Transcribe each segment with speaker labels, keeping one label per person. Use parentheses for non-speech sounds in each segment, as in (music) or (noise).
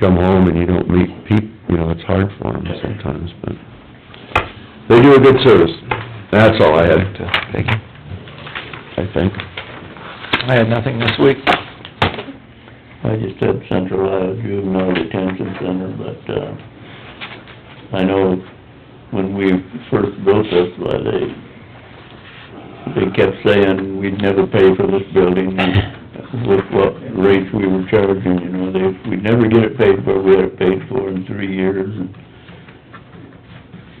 Speaker 1: come home and you don't meet people, you know, it's hard for them sometimes, but they do a good service. That's all I had to, thank you, I think.
Speaker 2: I had nothing this week. I just had Central Iowa Juvenile Detention Center, but, uh, I know when we first built this, why they, they kept saying we'd never pay for this building (laughs) with what rates we were charging, you know, they, we'd never get it paid for, we had it paid for in three years. and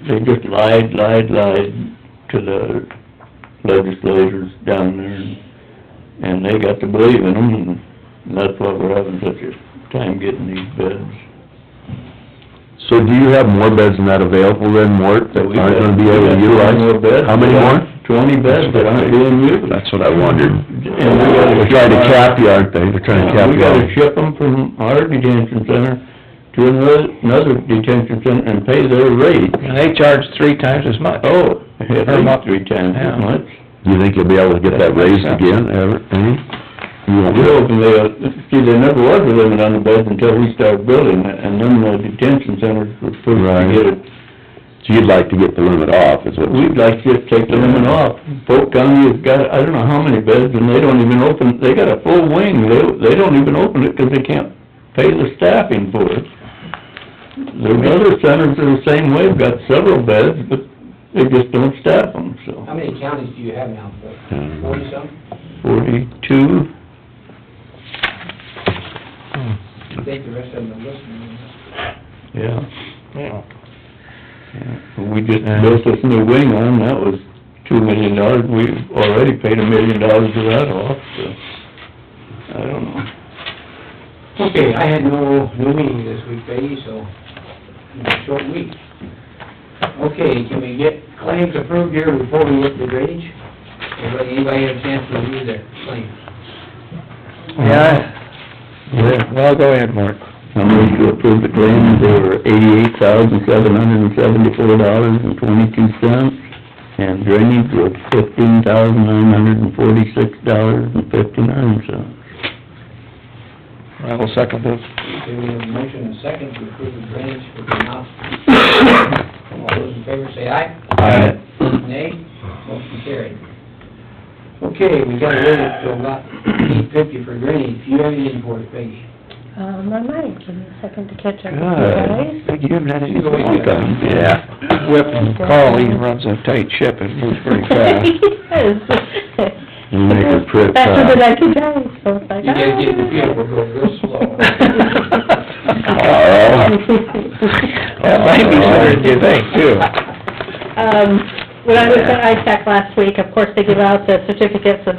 Speaker 2: They just lied, lied, lied to the legislators down there and and they got to believe in them, and that's why we're having such a time getting these bids.
Speaker 1: So do you have more beds than that available then, Mort, that
Speaker 2: We've
Speaker 1: aren't gonna be
Speaker 2: got-
Speaker 1: able to
Speaker 2: we've got
Speaker 1: utilize?
Speaker 2: 20 more bids.
Speaker 1: How many more?
Speaker 2: Twenty bids that aren't being used.
Speaker 1: That's what I wondered.
Speaker 2: And
Speaker 1: They're
Speaker 2: we gotta-
Speaker 1: trying to cap you, aren't they? They're trying to cap
Speaker 2: Uh, We
Speaker 1: you.
Speaker 2: gotta ship them from our detention center to another, another detention center and pay their rate.
Speaker 3: And they charge three times as much.
Speaker 2: Oh,
Speaker 3: Per
Speaker 2: at least
Speaker 3: month.
Speaker 2: three times as
Speaker 3: Yeah.
Speaker 2: much.
Speaker 1: Do you think you'll be able to get that raised again, ever, any? You won't.
Speaker 2: We're hoping they, see, there never was a limit on the beds until we started building, and then the detention centers were supposed
Speaker 1: Right.
Speaker 2: to get it
Speaker 1: So you'd like to get the limit off, is what
Speaker 2: We'd like to just take the limit off. Polk County has got, I don't know how many beds, and they don't even open, they got a full wing, they, they don't even open it because they can't pay the staffing for it. There's other centers that are the same way, have got several beds, but they just don't staff them, so.
Speaker 4: How many counties do you have now, Phil?
Speaker 1: Um,
Speaker 4: Forty-some?
Speaker 2: Forty-two,
Speaker 4: I think the rest of them are listening.
Speaker 2: yeah.
Speaker 3: Yeah.
Speaker 2: Yeah. We just built this new wing on, that was two million dollars, we've already paid a million dollars for that off, so, I don't know.
Speaker 4: Okay, I had no, no meeting this week, Peggy, so, it's a short week. Okay, can we get claims approved here before we get to drainage? Anybody, anybody have a chance to review their claims?
Speaker 3: Yeah, well, go ahead, Mark.
Speaker 2: I'm ready to approve the claims, they were eighty-eight thousand, seven hundred and seventy-four dollars and twenty-two cents, and drainage was fifteen thousand, nine hundred and forty-six dollars and fifty-nine cents.
Speaker 3: I will second this.
Speaker 4: Okay, we have a motion and a second to approve the drainage for the amount. All those in favor say aye.
Speaker 2: Aye.
Speaker 4: Nay, motion carried. Okay, we got ready to about eight fifty for drainage, you have anything for us, Peggy?
Speaker 5: Um, I might, give me a second to catch
Speaker 3: Good.
Speaker 5: up. Guys?
Speaker 3: Think you haven't had any
Speaker 4: Go ahead.
Speaker 3: time.
Speaker 1: Yeah.
Speaker 3: Whip and call, he runs a tight ship and moves
Speaker 5: (laughs)
Speaker 3: pretty fast.
Speaker 5: Yes.
Speaker 1: You make her trip
Speaker 5: Faster than
Speaker 1: fast.
Speaker 5: I can go, so it's like. "Oh,
Speaker 4: You guys get the feel, we're going real
Speaker 5: slow.
Speaker 3: That might be sooner than you think, too.
Speaker 5: Um, when I was at ISAC last week, of course, they give out the certificates of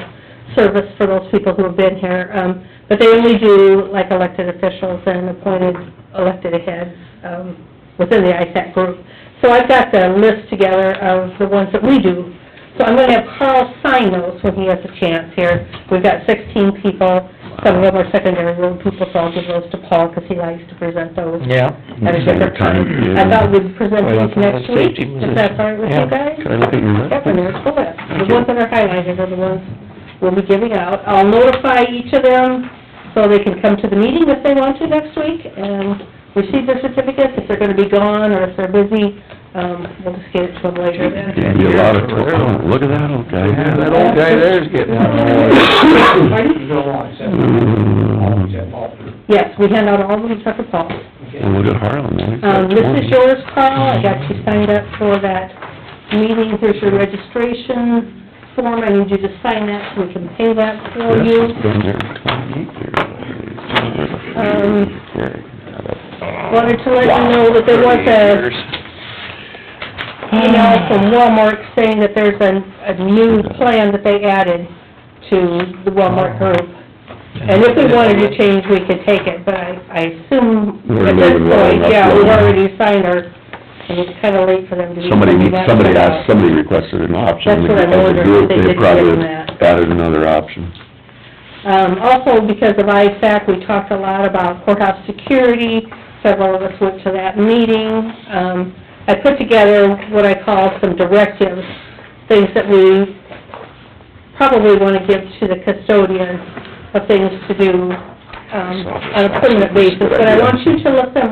Speaker 5: service for those people who have been here, um, but they only do like elected officials and appointed elected heads, um, within the ISAC group. So I've got the list together of the ones that we do. So I'm gonna have Carl sign those when he has a chance here. We've got sixteen people, some of them are secondary road people, so I'll give those to Paul, 'cause he likes to present those
Speaker 3: Yeah.
Speaker 5: at a different time. I thought we'd present these next week, if that's all right with you guys?
Speaker 1: Can I look at your list?
Speaker 5: Yep, and there's the list.
Speaker 1: Thank
Speaker 5: The
Speaker 1: you.
Speaker 5: ones that are highlighted are the ones we'll be giving out. I'll notify each of them so they can come to the meeting if they want to next week and receive their certificates, if they're gonna be gone or if they're busy, um, we'll just get it to them later
Speaker 1: Yeah, be a lot of, oh, look at that old guy.
Speaker 3: Yeah, that old guy there's getting
Speaker 5: then.
Speaker 4: You don't want to
Speaker 1: Mm.
Speaker 5: Yes, we hand out all of them except for Paul.
Speaker 1: Well, look at Harlem, man.
Speaker 5: Um, this is yours, Carl, I got you signed up for that meeting, here's your registration form, I need you to sign that so we can pay that for
Speaker 1: This
Speaker 5: you.
Speaker 1: has been there twenty years.
Speaker 5: Um,
Speaker 1: Okay.
Speaker 5: Wanted to let you know that there was a email
Speaker 1: Ah.
Speaker 5: from Walmart saying that there's a, a new plan that they added to the
Speaker 1: Ah.
Speaker 5: Walmart group. And if we wanted to change, we could take it, but I, I assume
Speaker 1: We're
Speaker 5: at this
Speaker 1: leaving well
Speaker 5: point,
Speaker 1: enough
Speaker 5: yeah, we've
Speaker 1: alone.
Speaker 5: already signed our, and it's kinda late for them to be.
Speaker 1: Somebody,
Speaker 5: sending that
Speaker 1: somebody
Speaker 5: stuff out.
Speaker 1: asked, somebody requested an option.
Speaker 5: That's what I'm
Speaker 1: As a
Speaker 5: wondering,
Speaker 1: group,
Speaker 5: if they did give
Speaker 1: probably
Speaker 5: them that.
Speaker 1: Added another option.
Speaker 5: Um, also because of ISAC, we talked a lot about courthouse security, several of us went to that meeting. Um, I put together what I call some directives, things that we probably wanna give to the custodian of things to do um, on a permanent basis, but I want you to let them